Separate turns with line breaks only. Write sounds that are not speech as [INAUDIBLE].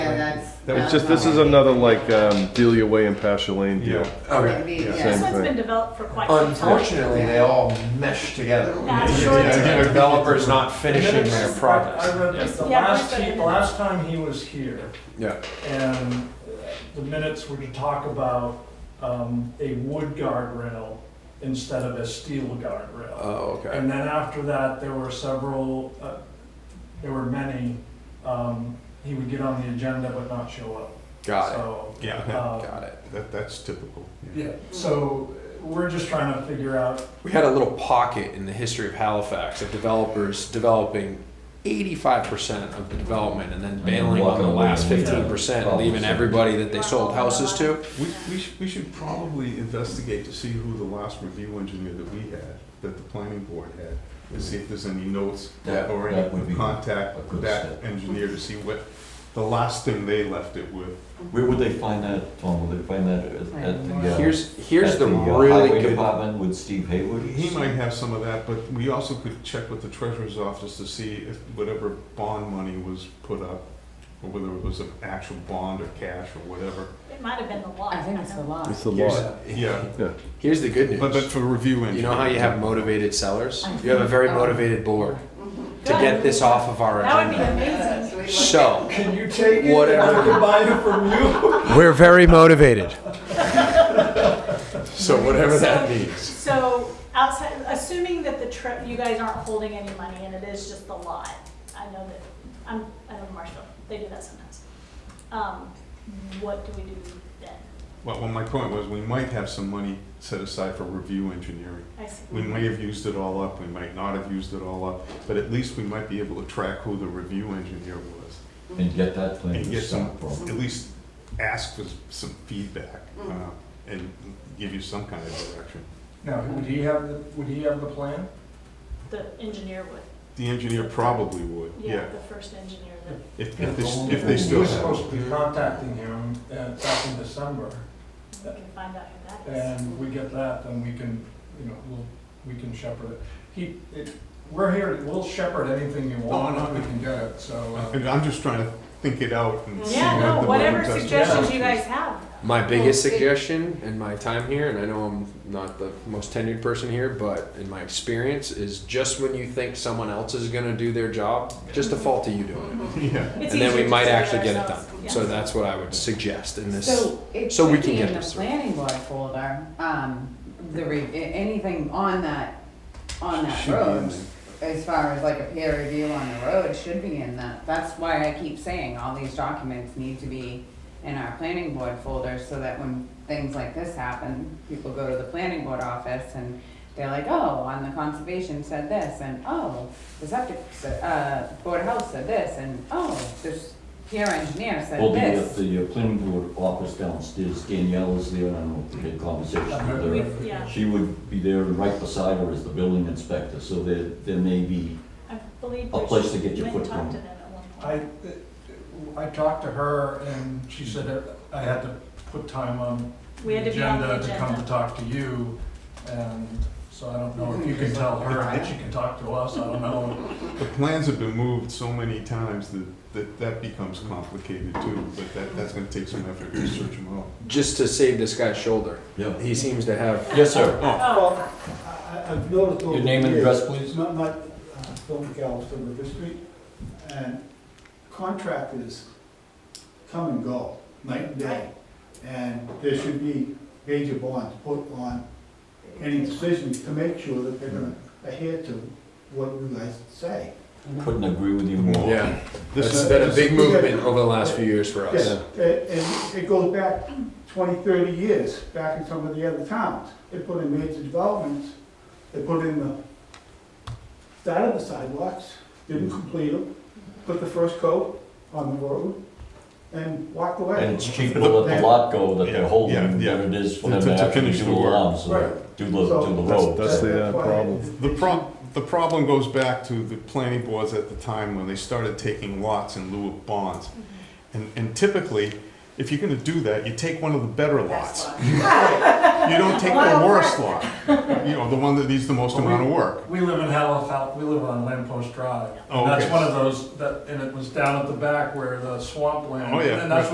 that's.
That was just, this is another like um, Delia Way and Pasha Lane deal.
Yeah.
Okay.
Maybe,
Yeah.
yeah.
This
Same
one's
thing.
been developed for quite some time.
Unfortunately, they all mesh together.
That's Yeah. right.
The Developer's not finishing
Minutes,
their
I-
projects.
I read this the
Yeah, I
last,
read the
he-
minutes.
last time he was here,
Yeah.
and uh, the minutes were to talk about um, a wood guardrail instead of a steel guardrail.
Oh, okay.
And then after that, there were several, uh, there were many, um, he would get on the agenda but not show up.
Got
So,
it.
Yeah,
Um,
uh,
Got it.
that, that's typical.
yeah, so we're just trying to figure out,
We had a little pocket in the history of Halifax of developers developing eighty-five percent of the development and then bailing on
walking
the
away
last
and
fifteen percent,
leaving.
leaving everybody that they sold houses to.
We, we should, we should probably investigate to see who the last review engineer that we had, that the planning board had, and see if there's any notes
That-
or
that would be
any contact
a
with
good
that
step.
engineer to see what the last thing they left it with.
Where would they find that, Tom? Would they find that at, at the? uh,
Here's, here's
at
the
uh,
really
highway
good.
Department with Steve Haywood?
He might have some of that, but we also could check with the treasurer's office to see if whatever bond money was put up, or whether it was an actual bond or cash or whatever.
It might have been the lot.
I think it's the
don't know.
lot.
It's the
Here's-
law.
Yeah,
Here's the good
but, but
news.
for review engineer.
You know how you have motivated sellers?
I
You have a very
think, um,
motivated board to
Good.
get this off of our
That would be
agenda.
amazing.
So,
can you take it?
Whatever.
I can buy it from you.
we're very motivated. So whatever that
So-
means.
So outside, assuming that the trip, you guys aren't holding any money and it is just the lot, I know that, I'm, I know Marshall, they do that sometimes. Um, What do we do then?
Well, well, my point was, we might have some money set aside for review engineering.
I see.
We
Mm-hmm.
may have used it all up, we might not have used it all up, but at least we might be able to track who the review engineer was.
And get that plan
And
to
get some,
stop from.
at least ask for some feedback,
Mm.
uh, and give you some kind of direction.
Now, would he have, the would he have the plan?
The engineer would,
The engineer probably would,
yeah,
yeah.
the first engineer that.
If, if they, if they still
We're
have.
supposed to be contacting him uh, back in December,
We can find out who that is.
and we get that, then we can, you know, we'll, we can shepherd it. He, it, we're here, we'll shepherd anything you want,
no.
we can get it, so. uh,
And I'm just trying to think it out and see
Yeah,
what
no,
the
whatever
best-
suggestions you guys have.
My biggest
Well, it-
suggestion in my time here, and I know I'm not the most tenured person here, but in my experience, is just when you think someone else is going to do their job, just default to you doing it.
[LAUGHS] Yeah,
It's
and then
easier
we
to
might
say
actually get it done.
ourselves, yeah.
So that's what I would suggest in this.
So it
so we
should
can
be
get
in the
this.
planning board folder, um, the re, a- anything on that, on that
Should be in
road. As far as like a peer review on the road should be in that, that's why I keep saying all these documents need to be in our planning board folder, so that when things like this happen, people go to the planning board office and they're like, oh, on the conservation said this, and oh, the septic, s- uh, board of health said this, and oh, this peer engineer said
Well, the,
this.
the uh, planning board office downstairs, Danielle is there, I don't know if you had conversation with her.
We- Yeah,
She would be there right beside her as the building inspector, so there, there may be,
I believe.
A
we
place to get your
went and
foot
talked
wrong.
to them at one point.
I, uh, I talked to her, and she said that I had to put time on
We
the
had to be on the
agenda to come to
agenda.
talk to you, and so I don't know if you can tell her that she can talk to us, I don't know.
[LAUGHS] the plans have been moved so many times that, that that becomes complicated too, but that, that's gonna take some effort to search them out.
just to save this guy's shoulder.
yeah.
He seems to have.
Yes, sir.
Oh,
I- I've noticed over
Your
the
name and
years,
address, please?
not, not uh, Phil McAllister, River Street, and contractors come and go, night and day. And there should be major bonds put on any decision to make sure that they're gonna adhere to what you guys say.
Couldn't agree with you more.
Yeah,
This
that's
is-
been a big movement over the last few years for us.
Yes, a- and it goes back 20, 30 years, back in some of the other towns. They put in major developments, they put in the, started the sidewalks, didn't complete them, put the first coat on the road, and walked away.
And it's cheaper to let the lot go that they're holding
Yeah, yeah.
than it is for
To-
them
to-
to
to
actually
finish
do
the
the
work.
lawns, uh,
Right.
do the, do
So-
the
That's-
road.
that's the uh,
why
problem.
The prob, the problem goes back to the planning boards at the time when they started taking lots in lieu of bonds. And, and typically, if you're gonna do that, you take one of the better lots. You don't [LAUGHS] take the worst lot, you know, the one that needs the most amount of work.
We live in Halifax, we live on Lampost Drive.
Oh,
And that's
okay.
one of those, that, and it was down at the back where the swamp land.
Oh, yeah.
And that's